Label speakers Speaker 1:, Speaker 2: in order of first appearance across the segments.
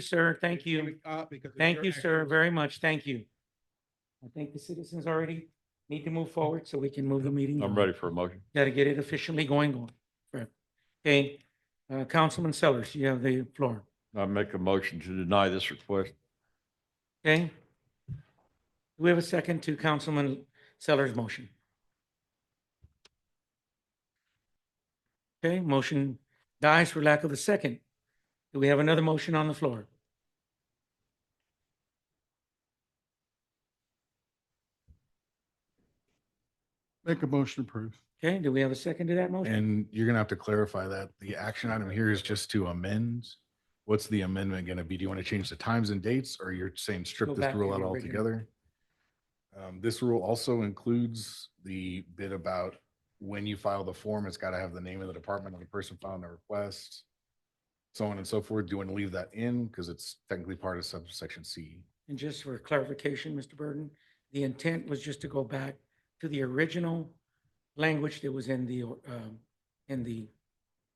Speaker 1: Sir, thank
Speaker 2: Give
Speaker 1: you.
Speaker 2: it up because it's
Speaker 1: Thank
Speaker 2: your
Speaker 1: you, sir,
Speaker 2: actions.
Speaker 1: very much. Thank you. I think the citizens already need to move forward so we can move the meeting.
Speaker 3: I'm
Speaker 1: on.
Speaker 3: ready for a motion.
Speaker 1: Gotta get it officially going on. Right. Okay, uh, Councilman Sellers, you have the floor.
Speaker 3: I make a motion to deny this request.
Speaker 1: Okay? Do we have a second to Councilman Sellers' motion? Okay, motion dies for lack of a second. Do we have another motion on the floor?
Speaker 4: Make a motion to approve.
Speaker 1: Okay, do we have a second to that motion?
Speaker 5: And you're gonna have to clarify that. The action item here is just to amend. What's the amendment gonna be? Do you want to change the times and dates or you're saying
Speaker 1: Go
Speaker 5: strip
Speaker 1: back
Speaker 5: this
Speaker 1: to
Speaker 5: rule
Speaker 1: the
Speaker 5: out
Speaker 1: original.
Speaker 5: altogether? Um, this rule also includes the bit about when you file the form, it's gotta have the name of the department of the person filing the request. So on and so forth. Do you want to leave that in? Because it's technically part of subsection C.
Speaker 1: And just for clarification, Mr. Burden, the intent was just to go back to the original language that was in the, or- um, in the,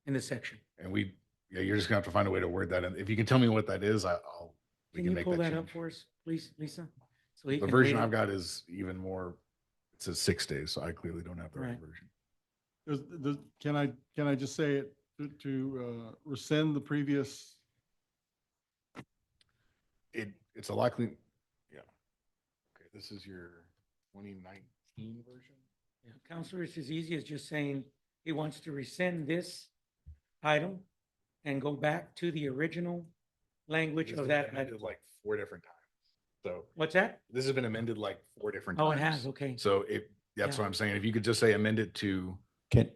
Speaker 1: in the section.
Speaker 5: And we, yeah, you're just gonna have to find a way to word that. And if you can tell me what that is, I- I'll. we
Speaker 1: Can you
Speaker 5: make
Speaker 1: pull that up
Speaker 5: change.
Speaker 1: for us, please, Lisa? So he
Speaker 5: The
Speaker 1: can
Speaker 5: version
Speaker 1: read
Speaker 5: I've
Speaker 1: it.
Speaker 5: got is even more, it says six days, so I clearly don't have the right
Speaker 1: Right.
Speaker 5: version.
Speaker 4: Does, does, can I, can I just say it to- to uh, rescind the previous?
Speaker 5: It, it's a likely, yeah. Okay, this is your twenty nineteen version?
Speaker 1: Yeah, Counselor, it's as easy as just saying he wants to rescind this item and go back to the original language
Speaker 5: This
Speaker 1: of
Speaker 5: has
Speaker 1: that.
Speaker 5: been
Speaker 1: item.
Speaker 5: amended Like four different times. So
Speaker 1: What's that?
Speaker 5: this has been amended like four different times.
Speaker 1: Oh, it has, okay.
Speaker 5: So it, that's
Speaker 1: Yeah.
Speaker 5: what I'm saying. If you could just say amend it to,
Speaker 6: Can,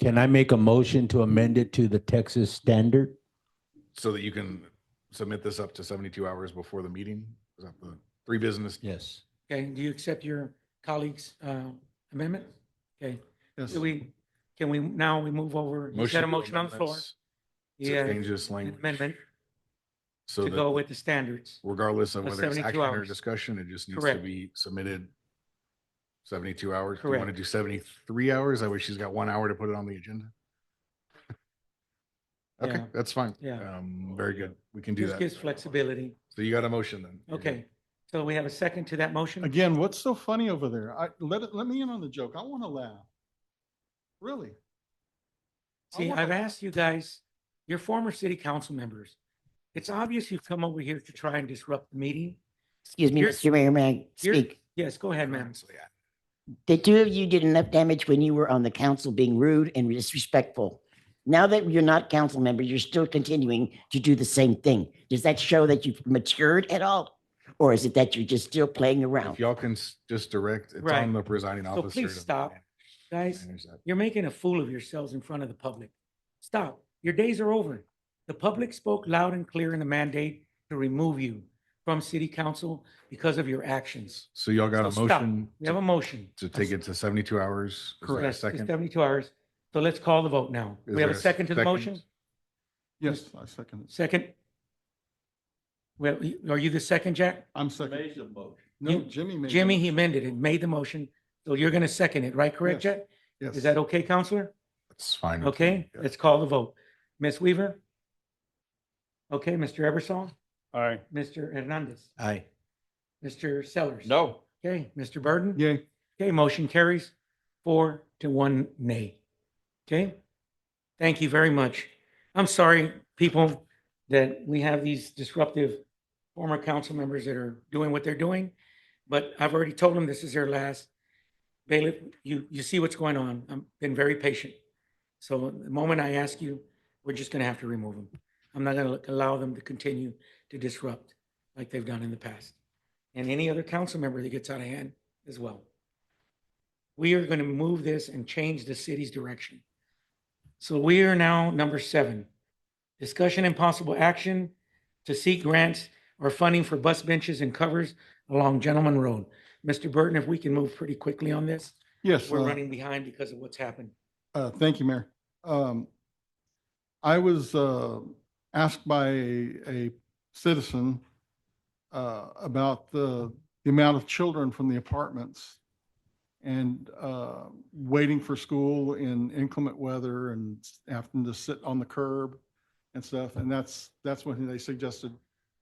Speaker 6: can I make a motion to amend it to the Texas standard?
Speaker 5: so that you can submit this up to seventy-two hours before the meeting? Is that the three business?
Speaker 6: Yes.
Speaker 1: Okay, do you accept your colleague's uh, amendment? Okay,
Speaker 4: Yes.
Speaker 1: do we, can we, now we move over, you
Speaker 5: Motion
Speaker 1: said a
Speaker 5: to
Speaker 1: motion on the floor.
Speaker 5: amendments to
Speaker 1: Yeah,
Speaker 5: Change this language.
Speaker 1: amendment
Speaker 5: So
Speaker 1: to
Speaker 5: that-
Speaker 1: go with the standards.
Speaker 5: regardless of
Speaker 1: Of
Speaker 5: whether it's
Speaker 1: 72
Speaker 5: action or
Speaker 1: hours.
Speaker 5: discussion, it just needs to
Speaker 1: Correct.
Speaker 5: be submitted seventy-two hours. Do you want to do seventy-three hours? That way she's got one hour to put it on the agenda. Okay,
Speaker 1: Yeah.
Speaker 5: that's fine.
Speaker 1: Yeah.
Speaker 5: Um, very good. We can do
Speaker 1: This gives
Speaker 5: that.
Speaker 1: flexibility.
Speaker 5: So you got a motion then. You're good.
Speaker 1: Okay, so we have a second to that motion?
Speaker 4: Again, what's so funny over there? I, let it, let me in on the joke. I want to laugh. Really? I
Speaker 1: See,
Speaker 4: wanna-
Speaker 1: I've asked you guys, your former city council members, it's obvious you've come over here to try and disrupt the meeting.
Speaker 7: Excuse me,
Speaker 1: You're-
Speaker 7: Mr. Mayor, may I
Speaker 1: you're-
Speaker 7: speak?
Speaker 1: Yes, go ahead, ma'am.
Speaker 5: So, yeah.
Speaker 7: The two of you did enough damage when you were on the council being rude and disrespectful. Now that you're not council member, you're still continuing to do the same thing. Does that show that you've matured at all? Or is it that you're just still playing
Speaker 5: If
Speaker 7: around?
Speaker 5: y'all can s- just direct, it's
Speaker 1: Right.
Speaker 5: on the presiding
Speaker 1: So
Speaker 5: officer.
Speaker 1: please
Speaker 5: to
Speaker 1: stop. Guys,
Speaker 5: manage that.
Speaker 1: you're making a fool of yourselves in front of the public. Stop. Your days are over. The public spoke loud and clear in the mandate to remove you from city council because of your actions.
Speaker 5: So y'all got a
Speaker 1: So stop.
Speaker 5: motion
Speaker 1: We have a
Speaker 5: to
Speaker 1: motion.
Speaker 5: to take it to seventy-two hours? Is there a
Speaker 1: Yes, it's
Speaker 5: Second?
Speaker 1: Seventy-two hours. So let's call the vote now.
Speaker 5: Is
Speaker 1: We have a
Speaker 5: there a
Speaker 1: second to the
Speaker 5: second?
Speaker 1: motion?
Speaker 4: Yes, I second it.
Speaker 1: Second? Well, are you the second, Jack?
Speaker 4: I'm second.
Speaker 1: You-
Speaker 4: No, Jimmy made. the
Speaker 1: Jimmy, he
Speaker 4: motion.
Speaker 1: amended it, made the motion. So you're going to second it, right? Correct,
Speaker 4: Yes.
Speaker 1: Jack?
Speaker 4: Yes.
Speaker 1: Is that okay, Counselor?
Speaker 5: It's fine. with me.
Speaker 1: Okay,
Speaker 5: Yeah.
Speaker 1: let's call the vote. Ms. Weaver? Okay, Mr. Eversol. Aye. Mr. Hernandez?
Speaker 6: Aye.
Speaker 1: Mr. Sellers?
Speaker 3: No.
Speaker 1: Okay, Mr. Burden?
Speaker 4: Yay.
Speaker 1: Okay, motion carries four to one nay. Okay? Thank you very much. I'm sorry, people, that we have these disruptive former council members that are doing what they're doing, but I've already told them this is their last. Bailiff, you, you see what's going on. I've been very patient. So the moment I ask you, we're just going to have to remove them. I'm not going to allow them to continue to disrupt like they've done in the past. And any other council member that gets out of hand as well we are going to move this and change the city's direction. So we are now number seven. Discussion and possible action to seek grants or funding for bus benches and covers along Gentleman Road. Mr. Burton, if we can move pretty quickly on this,
Speaker 4: Yes.
Speaker 1: we're
Speaker 4: uh,
Speaker 1: running behind because of what's happened.
Speaker 4: Uh, Thank you, Mayor. Um, I was uh, asked by a a citizen uh, about the the amount of children from the apartments and uh, waiting for school in inclement weather and having to sit on the curb and stuff. And that's, that's when they suggested